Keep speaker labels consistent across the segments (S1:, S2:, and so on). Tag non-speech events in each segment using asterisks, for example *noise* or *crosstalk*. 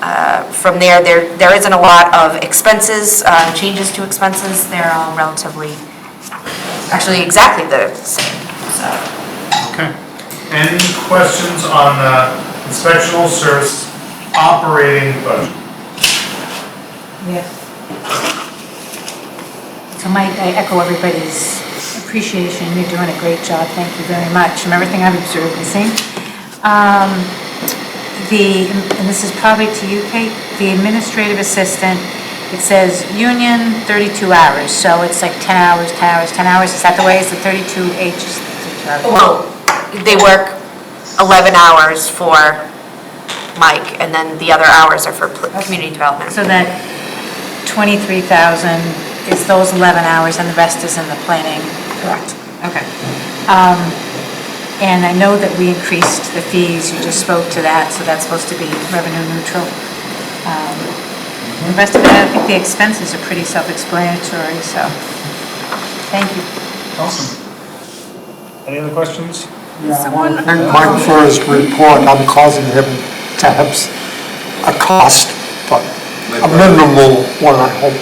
S1: uh, from there, there, there isn't a lot of expenses, uh, changes to expenses, they're all relatively, actually exactly the same, so.
S2: Okay. Any questions on the inspectional service operating budget?
S3: Yes. So Mike, I echo everybody's appreciation. You're doing a great job. Thank you very much. From everything I've observed and seen. Um, The, and this is probably to you, Kate, the administrative assistant, it says union 32 hours. So it's like 10 hours, 10 hours, 10 hours. Is that the way? Is the 32H? is 32 hours?
S1: Well, they work 11 hours for Mike, and then the other hours are for pl- community development.
S3: So that 23,000 is those 11 hours and the rest is in the planning? Correct. Okay. Um, And I know that we increased the fees, you just spoke to that, so that's supposed to be revenue neutral. Um, The rest of it, I think the expenses are pretty self-explanatory, so, thank you.
S2: Awesome. Any other questions?
S4: Mike for his report, I'm causing him to have s- a cost, but a minimal one, I hope.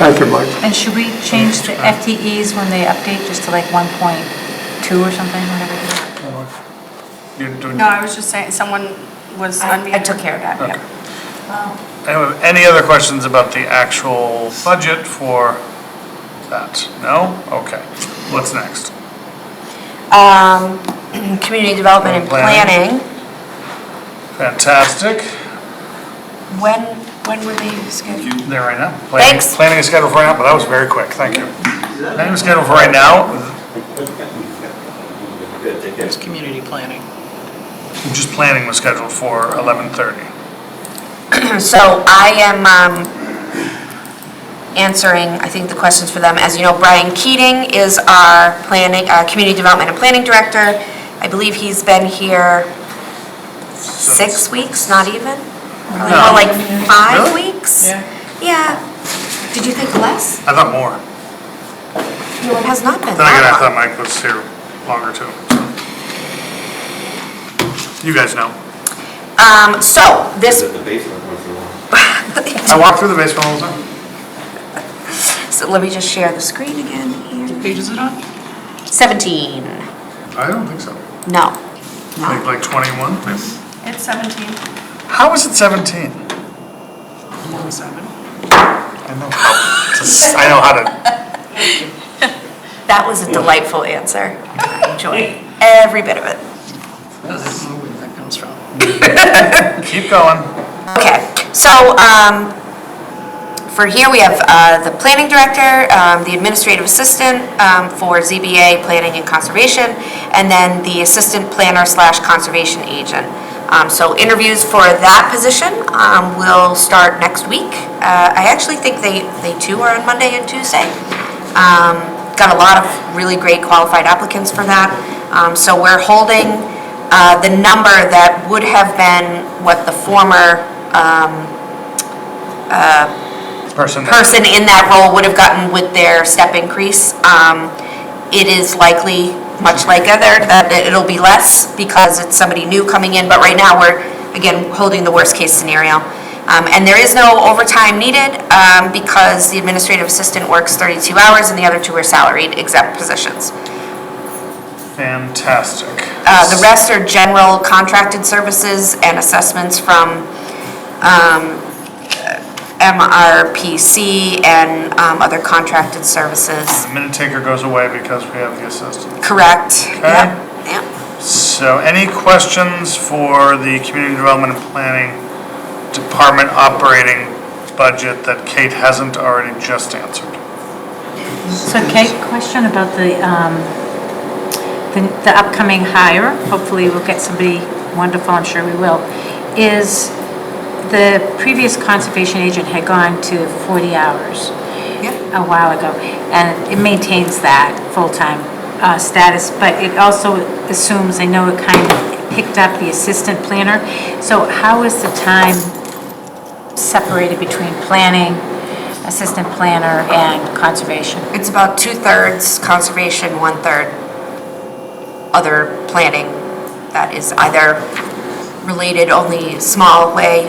S4: Thank you, Mike.
S3: And should we change the FTEs when they update, just to like 1.2 or something, whatever it is?
S2: You're doing,
S5: No, I was just saying, someone was unmuted.
S1: I took care of that, yeah.
S2: Anyway, any other questions about the actual budget for that? No? Okay. What's next?
S1: Um, *clears throat* Community development and planning,
S2: Planning. Fantastic.
S1: when, when were they scheduled?
S2: There right now. Planning-
S1: Thanks.
S2: Planning is scheduled for right now, but that was very quick. Thank you. Planning is scheduled for right now.
S6: Good, take care.
S7: It's community planning.
S2: Just planning was scheduled for 11:30.
S1: So I am um, answering, I think, the questions for them. As you know, Brian Keating is our planning, uh, Community Development and Planning Director. I believe he's been here six weeks, not even? Probably more
S2: No.
S1: like five
S2: Really?
S1: weeks? Yeah. Did you think less?
S2: I thought more.
S1: No, it has not been
S2: Then again, I
S1: that
S2: thought
S1: long.
S2: Mike was here longer too. You guys know.
S1: Um, So
S6: Is
S1: this, *laughs*
S6: it the basement or if you want?
S2: I walk through the basement all the time.
S1: so let me just share the screen again here.
S7: Page is it on?
S1: 17,
S2: I don't think so.
S1: no.
S2: Like, like 21?
S5: It's 17.
S2: How is it 17?
S7: Seven.
S2: I know how to, s- I know how to,
S1: That was a delightful answer. I enjoyed every bit of it.
S7: Doesn't know where that comes from.
S2: keep going.
S1: Okay, so, um, for here, we have, uh, the planning director, um, the administrative assistant, um, for ZBA, planning and conservation, and then the assistant planner slash conservation agent. Um, so interviews for that position, um, will start next week. Uh, I actually think they, they too are on Monday and Tuesday. Um, got a lot of really great qualified applicants for that. Um, so we're holding, uh, the number that would have been what the former,
S2: Person.
S1: person in that role would have gotten with their step increase. Um, It is likely, much like other, that it- it'll be less because it's somebody new coming in, but right now, we're, again, holding the worst-case scenario. Um, And there is no overtime needed um, because the administrative assistant works 32 hours and the other two are salaried exempt positions.
S2: Fantastic.
S1: Uh, The rest are general contracted services and assessments from um, MRPC and um, other contracted services.
S2: The minute taker goes away because we have the assistant.
S1: Correct.
S2: Okay.
S1: Yep, yep.
S2: So any questions for the community development and planning department operating budget that Kate hasn't already just answered?
S3: So Kate, question about the, um, the the upcoming hire, hopefully we'll get somebody wonderful, I'm sure we will, is the previous conservation agent had gone to 40 hours a while ago, and it maintains that full-time uh, status, but it also assumes, I know it kind of picked up the assistant planner, so how is the time separated between planning, assistant planner, and conservation?
S1: It's about two-thirds conservation, one-third other planning that is either related only small way